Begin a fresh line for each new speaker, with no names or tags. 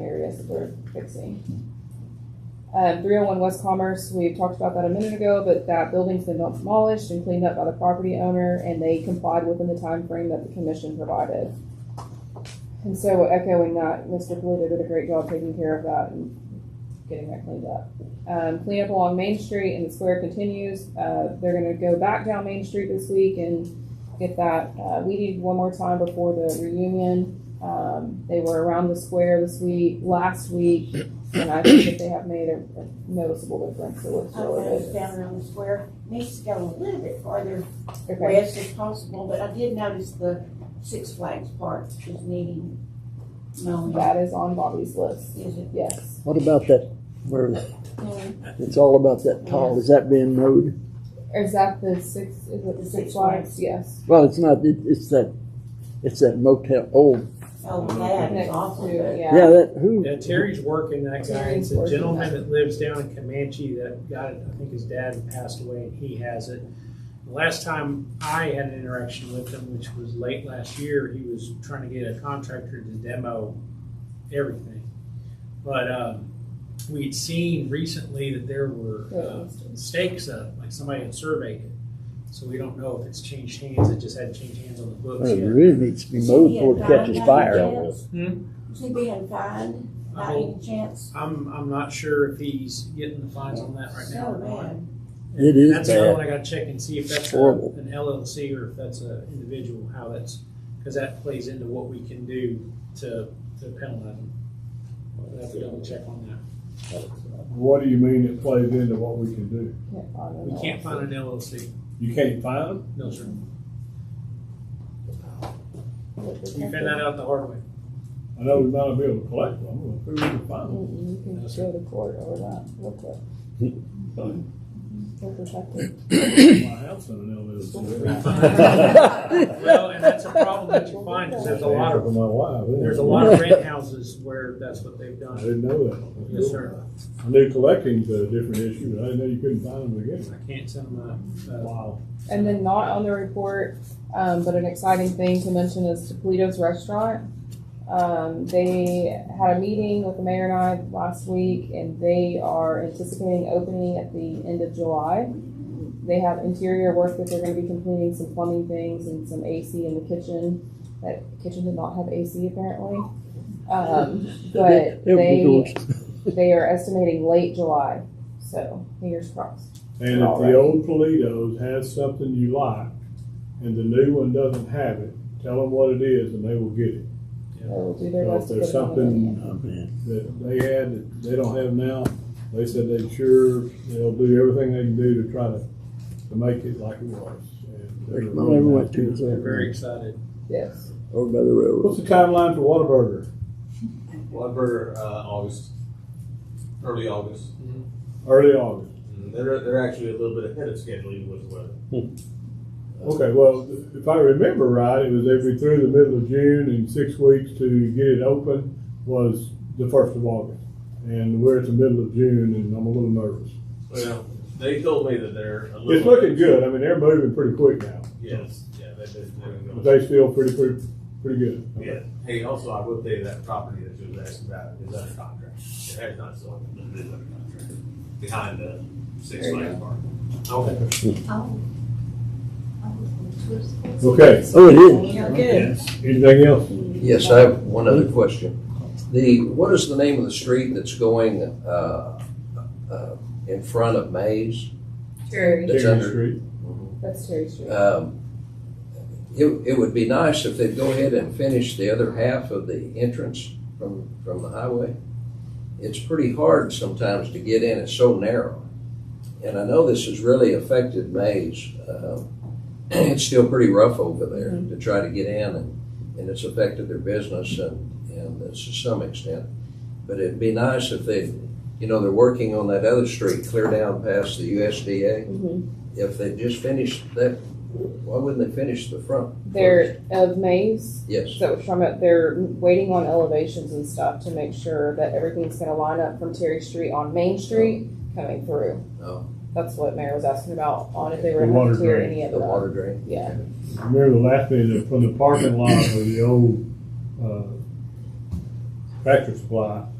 is worth fixing. Um, three oh one West Commerce, we talked about that a minute ago, but that building's been demolished and cleaned up by the property owner, and they complied within the time frame that the commission provided. And so echoing that, Mr. Polito did a great job taking care of that and getting that cleaned up. Um, cleanup along Main Street and the square continues, uh, they're gonna go back down Main Street this week and get that, uh, weeded one more time before the reunion. Um, they were around the square this week, last week, and I think that they have made a, a noticeable difference. It looks
I
really
was
good.
down around the square, needs to go a little bit farther
Okay,
west if possible, but I did notice the Six Flags Park is needing mowing.
that is on Bobby's list.
Is it?
Yes.
What about that, where it's all about that tall, is that being mowed?
Is that the six? Is it the
The
Six
Six
Flags? Yes.
Well, it's not, it, it's that, it's that motel, oh,
Oh, that is
Next
awful,
to
but
yeah,
yeah.
that, who?
Yeah, Terry's working that guy. It's
Terry's
a
working
gentleman
that.
that lives down in Comanche that got it. I think his dad passed away and he has it. The Last time I had an interaction with him, which was late last year, he was trying to get a contractor to demo everything. But, um, we'd seen recently that there were, uh, stakes up, like somebody had surveyed it. So we don't know if it's changed hands. It just hadn't changed hands on the
Well,
books
It
yet.
really needs to be mowed before it catches fire.
Is he being fined by
Oh.
any chance?
I'm, I'm not sure if he's getting the fines on that right
So
now or not.
bad.
It is
That's another
bad.
one I gotta check and see if that's a-
Horrible.
an LLC or if that's a individual, how that's, because that plays into what we can do to, to penalize them. I'll have to double check on that.
What do you mean it plays into what we can do?
Can't find them
We
all.
can't find an LLC,
You can't find them?
no sir. We found that out the hard way.
I know we might not be able to collect them, I don't know if we can find them.
Mm-mm, You can go to court over that real quick. They're protected.
My house in an LLC.
Well, and that's a problem that you find, because there's a lot
For
of,
my wife. isn't it?
there's a lot of rent houses where that's what they've
I
done.
didn't know that.
Yes, sir.
I knew collecting's a different issue, but I didn't know you couldn't find them again.
I can't send them a, a
Wow.
And then not on the report, um, but an exciting thing to mention is Toledo's Restaurant. Um, they had a meeting with the mayor and I last week, and they are anticipating opening at the end of July. They have interior work that they're going to be completing, some plumbing things, and some AC in the kitchen. That kitchen did not have AC apparently, um, but
It- it
they
was-
they are estimating late July. So fingers crossed.
And if the old Toledo's has something you like and the new one doesn't have it, tell them what it is and they will get it.
They will do their
So
best
if
to get
there's
it on the menu.
something
Oh, man.
that they had that they don't have now. They said they sure, they'll do everything they can do to try to, to make it like it was. And they're
Well, I went to,
really-
They're very
over
excited.
Yes.
by the railroad.
What's the timeline for Whataburger?
Whatever, uh, August, early August.
Early August.
Mm, They're, they're actually a little bit ahead of schedule even with the weather.
Okay, well, if I remember right, it was every through the middle of June and six weeks to get it open was the first of August. And we're at the middle of June and I'm a little nervous.
Well, they told me that they're a little.
It's looking good. I mean, they're moving pretty quick now.
Yes, yeah, they, they, they're
But they
going.
feel pretty, pretty, pretty good.
Yeah, hey, also, I will tell you that property that you was asking about is under contract. It has not sold, but it is under contract, behind the Six
There you
Flags Park.
Okay.
Oh. Oh.
Okay,
Oh, it is.
Good.
anything else?
Yes, I have one other question. The, what is the name of the street that's going, uh, uh, in front of Maze?
Terry,
That's
Cherry
under-
Street.
that's Terry Street.
Um, It, it would be nice if they'd go ahead and finish the other half of the entrance from, from the highway. It's pretty hard sometimes to get in, it's so narrow. And I know this has really affected Mays. Um, It's still pretty rough over there to try to get in and, and it's affected their business and, and it's to some extent. But it'd be nice if they, you know, they're working on that other street clear down past the USDA.
Mhm.
If they just finished that, why wouldn't they finish the front?
They're of Maze.
Yes.
So it's from it, they're waiting on elevations and stuff to make sure that everything's going to line up from Terry Street on Main Street coming through.
Oh.
That's what Mayor was asking about on if they were
The
going
water
to clear
drain.
any of
The
that.
water drain?
Yeah.
Remember the last meeting, from the parking lot of the old, uh, tractor supply,